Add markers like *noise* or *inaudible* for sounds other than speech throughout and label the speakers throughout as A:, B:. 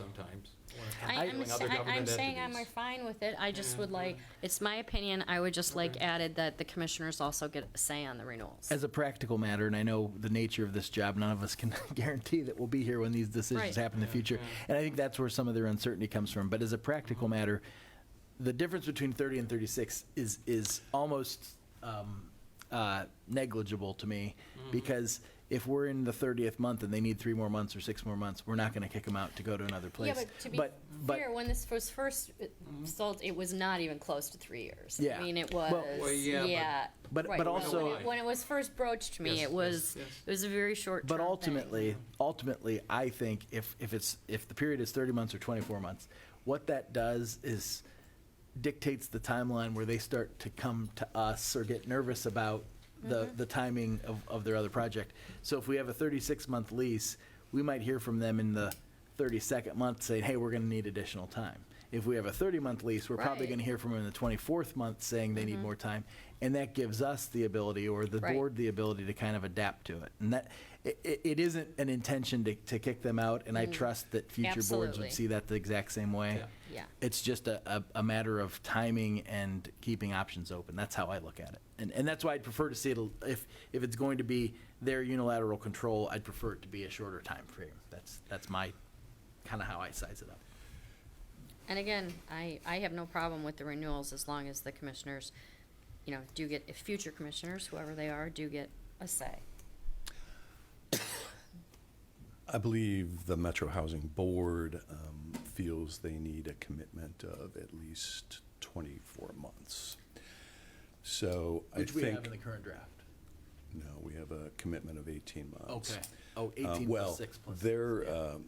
A: sometimes.
B: I,
A: Handling
B: I'm, s-
A: other
B: I- I'm
A: government
B: saying I'm
A: entities.
B: fine with it, I just
A: Yeah,
B: would like,
A: yeah.
B: it's my opinion, I would just like
A: Okay.
B: added that the commissioners also get a say on the renewals.
C: As a practical matter, and I know the nature of this job, none of us can *laughs* guarantee that we'll be here when these
B: Right.
C: decisions happen in the
A: Yeah,
C: future.
A: yeah. Mm-hmm.
C: And I think that's where some of their uncertainty comes from. But as a practical matter, the difference between 30 and 36 is, is almost um, uh, negligible to me
A: Mm-hmm.
C: because if we're in the 30th month and they need three more months or six more months, we're not going to kick them out to go to another
B: Yeah,
C: place.
B: but to be
C: but-
B: fair, when this was first uh, sold, it was not even close to three years. I
C: Yeah.
B: mean, it was,
C: Well-
A: Well, yeah, but-
B: yeah.
C: But-
B: right,
C: but
B: when-
C: also-
B: When it- when it was first broached to
A: Yes,
B: me, it
A: yes,
B: was,
A: yes.
B: it was a very short
C: But ultimately, ultimately, I think if, if it's, if the period is 30 months or 24 months, what that does is dictates the timeline where they start to come to us or get nervous about the,
B: Mm-hmm.
C: the timing of, of their other project. So if we have a 36-month lease, we might hear from them in the 32nd month saying, hey, we're going to need additional time. If we have a 30-month lease, we're probably
B: Right.
C: going to hear from them in the 24th month saying they need more time. And that gives us the ability or the
B: Mm-hmm. Right.
C: board the ability to kind of adapt to it. And that, it, it isn't an intention to, to kick them out, and I trust that future boards
B: Mm. Absolutely.
C: would see that the exact same way.
A: Yeah.
B: Yeah.
C: It's just a, a, a matter of timing and keeping options open. That's how I look at it. And, and that's why I'd prefer to see it, a- if, if it's going to be their unilateral control, I'd prefer it to be a shorter time frame. That's, that's my, kind of how I size it up.
B: And again, I, I have no problem with the renewals as long as the commissioners, you know, do get, if future commissioners, whoever they are, do get a say.
D: I believe the Metro Housing Board um, feels they need a commitment of at least 24 months. So I
C: Which we have in the
D: think,
C: current draft.
D: no, we have a commitment of 18 months.
C: Okay. Oh,
D: Uh,
C: 18 plus six plus.
D: Well, their, um,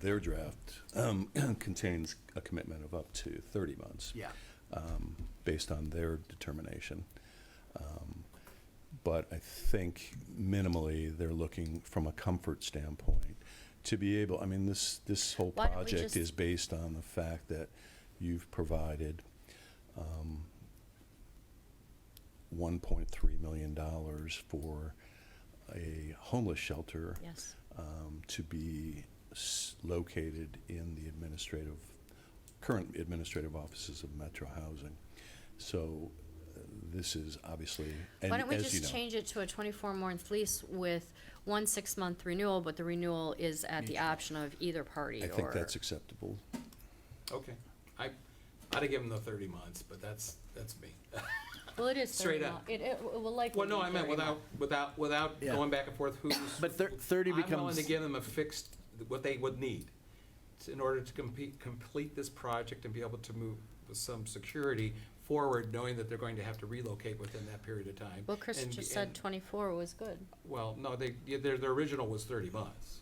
D: their draft um, *clears throat* contains a commitment of up to 30 months
C: Yeah.
D: um, based on their determination. Um, But I think minimally, they're looking from a comfort standpoint to be able, I mean, this, this whole
B: Why don't we just-
D: project is based on the fact that you've provided um, $1.3 million for a homeless shelter
B: Yes.
D: um, to be s- located in the administrative, current administrative offices of Metro Housing. So uh, this is obviously, and
B: Why don't we
D: as you
B: just
D: know,
B: change it to a twenty-four month lease with one six-month renewal, but the renewal is at the option of either party
D: I
B: or?
D: think that's acceptable.
A: Okay. I, I'd have given them the thirty months, but that's, that's me.
B: Well, it is
A: straight
B: thirty mo-
A: up.
B: It, it it will likely
A: Well, no,
B: be
A: I meant
B: 30
A: without,
B: mo-
A: without, without
C: Yeah.
A: going back and forth who's.
C: *coughs* But thir- 30
A: I'm willing to
C: becomes-
A: give them a fixed, what they would need to- in order to compete, complete this project and be able to move with some security forward, knowing that they're going to have to relocate within that period of time.
B: Well, Chris
A: And-
B: just said
A: and-
B: twenty-four was good.
A: Well, no, they, yeah, their, their original was thirty months,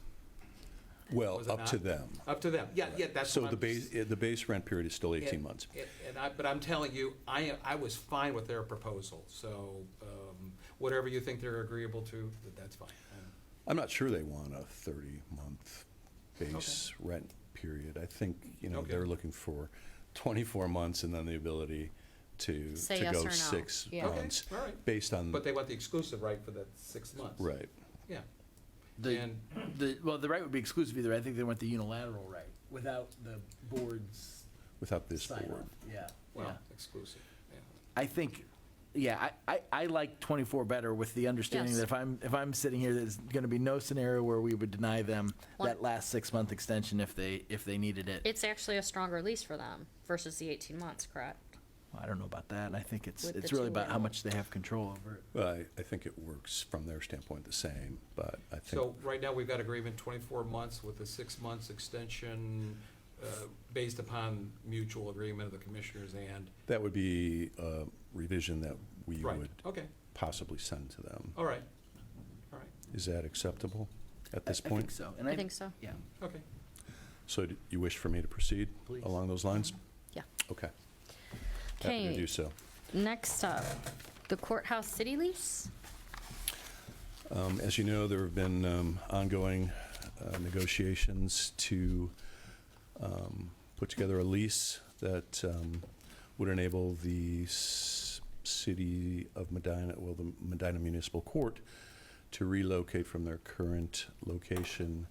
D: Well,
A: Was it
D: up to
A: not?
D: them.
A: up to them. Yeah, yeah, that's
D: So
A: what
D: the
A: I'm
D: base, uh, the base rent period is still 18
A: And-
D: months.
A: and- And I, but I'm telling you, I, I was fine with their proposal, so, um, whatever you think they're agreeable to, th- that's fine. Uh,
D: I'm not sure they want a 30-month base rent period. I think, you know,
A: Okay.
D: they're looking for 24 months and then the ability to,
B: Say
D: to
B: yes or
D: go
B: no.
D: six
B: Yeah.
A: Okay,
D: months,
A: all right,
D: based on,
A: but they want the exclusive right for that six months.
D: Mm. right.
A: Yeah,
C: The-
A: and,
C: The, well, the right would be exclusive either. I think they want the unilateral right without the board's
D: without this
C: sign off.
D: board.
C: Yeah. yeah.
A: well, exclusive, yeah.
C: I think, yeah, I, I, I like 24 better with the understanding
B: Yes.
C: that if I'm, if I'm sitting here, there's going to be no scenario where we would deny them
B: One-
C: that last six month extension if they, if they needed it.
B: It's actually a stronger lease for them versus the eighteen months, correct?
C: Well, I don't know about that. I think it's,
B: With the
C: it's really
B: two
C: about how
B: renewal.
C: much they have control over it.
D: Well, I, I think it works from their standpoint the same, but I think,
A: So right now, we've got agreement twenty-four months with a six months extension, uh, based upon mutual agreement of the commissioners and,
D: that would be a revision that we
A: right,
D: would
A: okay,
D: possibly send to them.
A: all right, all right,
D: Is that acceptable at this
C: I- I think
D: point?
C: so. And
B: I think so.
C: Yeah.
A: okay.
D: So do you wish for me to proceed
C: Please.
D: along those lines?
B: Yeah.
D: Okay. Happy to
B: Okay.
D: do so.
B: Next up, the courthouse city lease?
D: Um, As you know, there have been um, ongoing uh, negotiations to um, put together a lease that um, would enable the s- city of Medina, well, the Medina Municipal Court, to relocate from their current location